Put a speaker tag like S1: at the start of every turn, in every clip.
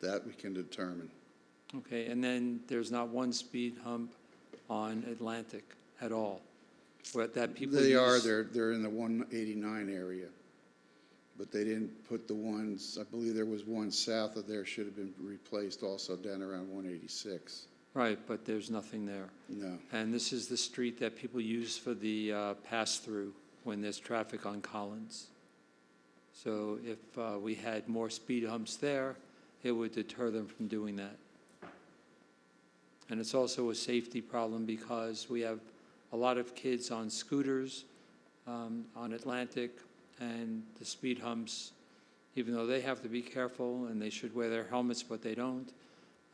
S1: That we can determine.
S2: Okay, and then there's not one speed hump on Atlantic at all? But that people
S1: They are,
S2: use-
S1: they're, they're in the one eighty-nine area. But they didn't put the ones, I believe there was one south of there should have been replaced also down around one eighty-six.
S2: Right, but there's nothing there.
S1: No,
S2: And this is the street that people use for the uh, pass-through when there's traffic on Collins. So if uh, we had more speed humps there, it would deter them from doing that. And it's also a safety problem because we have a lot of kids on scooters um, on Atlantic, and the speed humps, even though they have to be careful and they should wear their helmets, but they don't,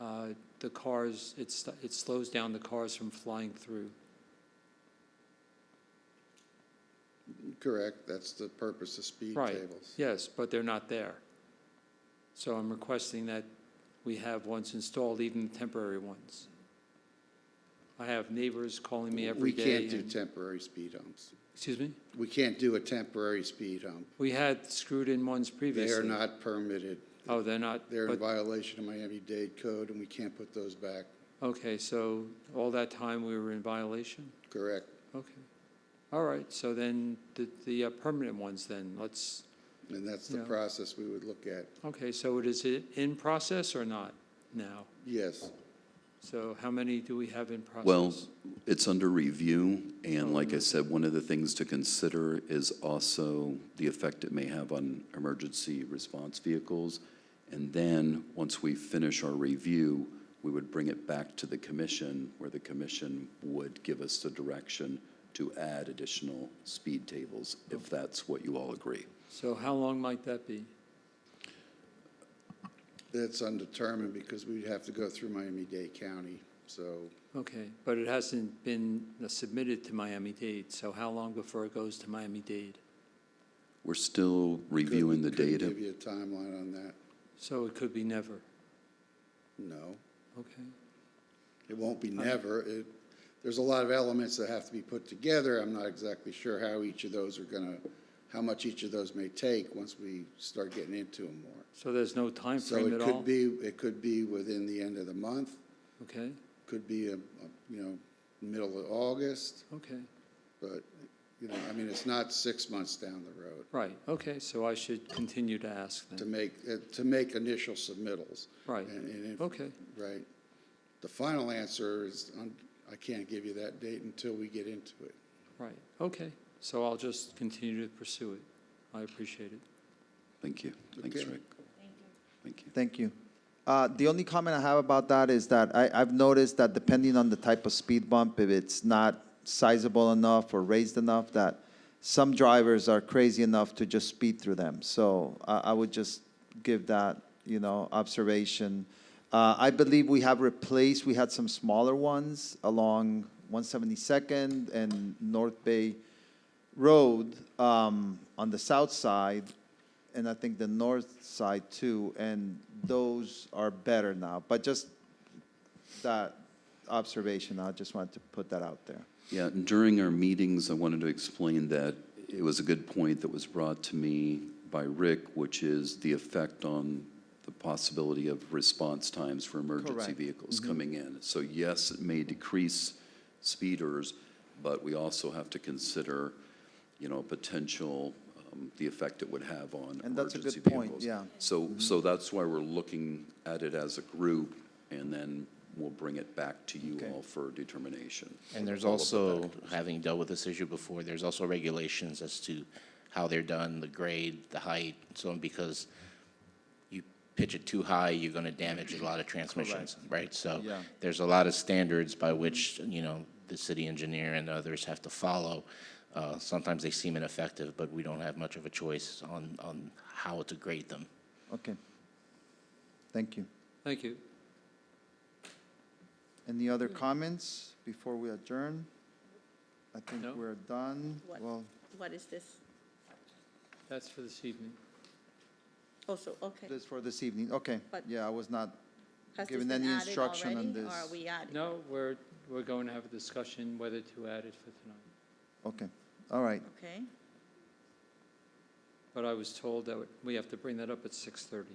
S2: uh, the cars, it's, it slows down the cars from flying through.
S1: correct, that's the purpose of speed
S2: Right.
S1: tables.
S2: Yes, but they're not there. So I'm requesting that we have ones installed, even temporary ones. I have neighbors calling me every
S1: We
S2: day.
S1: can't do
S2: and-
S1: temporary speed humps.
S2: Excuse me?
S1: We can't do a temporary speed hump.
S2: We had screwed in ones
S1: They
S2: previously.
S1: are not permitted.
S2: Oh, they're not?
S1: They're in
S2: but-
S1: violation of Miami-Dade code and we can't put those back,
S2: Okay, so all that time we were in violation?
S1: correct?
S2: Okay. All right, so then the, the uh, permanent ones then, let's,
S1: And that's the
S2: Yeah.
S1: process we would look at.
S2: okay, so it is it in process or not now?
S1: Yes,
S2: So how many do we have in process?
S3: Well, it's under review,
S2: Oh,
S3: and like
S2: okay.
S3: I said, one of the things to consider is also the effect it may have on emergency response vehicles. And then, once we finish our review, we would bring it back to the commission, where the commission would give us the direction to add additional speed tables, if that's what you all agree.
S2: So how long might that be?
S1: that's undetermined because we'd have to go through Miami-Dade County, so
S2: Okay, but it hasn't been submitted to Miami-Dade, so how long before it goes to Miami-Dade?
S3: We're still
S1: Couldn't-
S3: reviewing the
S1: couldn't
S3: data.
S1: Give you a timeline on that?
S2: So it could be never,
S1: No.
S2: okay?
S1: It won't be never. It, there's a lot of elements that have to be put together. I'm not exactly sure how each of those are gonna, how much each of those may take once we start getting into them more.
S2: So there's no time
S1: So
S2: frame
S1: it
S2: at
S1: could
S2: all?
S1: be, it could be within the end of the month,
S2: Okay,
S1: could be, a- a, you know, middle of August,
S2: okay,
S1: but, you know, I mean, it's not six months down the road
S2: right, okay, so I should continue to ask
S1: to
S2: then,
S1: make, uh, to make initial submittals.
S2: right,
S1: And- and if-
S2: okay,
S1: Right. The final answer is, um, I can't give you that date until we get into it.
S2: right, okay. So I'll just continue to pursue it, I appreciate it.
S3: Thank you. Thanks,
S1: Okay.
S3: Rick. Thank you.
S4: Thank you. Uh, The only comment I have about that is that I, I've noticed that depending on the type of speed bump, if it's not sizable enough or raised enough, that some drivers are crazy enough to just speed through them. So I, I would just give that, you know, observation. Uh, I believe we have replaced, we had some smaller ones along 172nd and North Bay Road um, on the south side, and I think the north side too, and those are better now. But just that observation, I just wanted to put that out there.
S3: Yeah, and during our meetings, I wanted to explain that it was a good point that was brought to me by Rick, which is the effect on the possibility of response times for emergency
S4: Correct. Mm-hmm.
S3: vehicles coming in. So yes, it may decrease speeders, but we also have to consider, you know, potential, um, the effect it would have on
S4: And that's a
S3: emergency
S4: good point,
S3: vehicles.
S4: yeah. Mm-hmm.
S3: So, so that's why we're looking at it as a group, and then we'll bring it back to you
S4: Okay.
S3: all for determination.
S5: And there's
S3: All of the
S5: also,
S3: factors.
S5: having dealt with this issue before, there's also regulations as to how they're done, the grade, the height, and so on, because you pitch it too high, you're gonna damage a lot of transmissions, right? So
S4: Yeah.
S5: there's a lot of standards by which, you know, the city engineer and others have to follow. Uh, sometimes they seem ineffective, but we don't have much of a choice on, on how to grade them.
S4: Okay. Thank you.
S2: Thank you.
S4: Any other comments before we adjourn? I think
S2: No.
S4: we're done.
S6: What?
S4: Well,
S6: What is this?
S2: That's for this evening.
S6: Also, okay.
S4: this for this evening, okay.
S6: But-
S4: Yeah, I was not,
S6: Has this
S4: given
S6: been
S4: any
S6: added
S4: instruction on
S6: already,
S4: this.
S6: Or are we adding?
S2: No, we're, we're going to have a discussion whether to add it for tonight.
S4: okay, all right.
S6: Okay.
S2: But I was told that we have to bring that up at 6:30.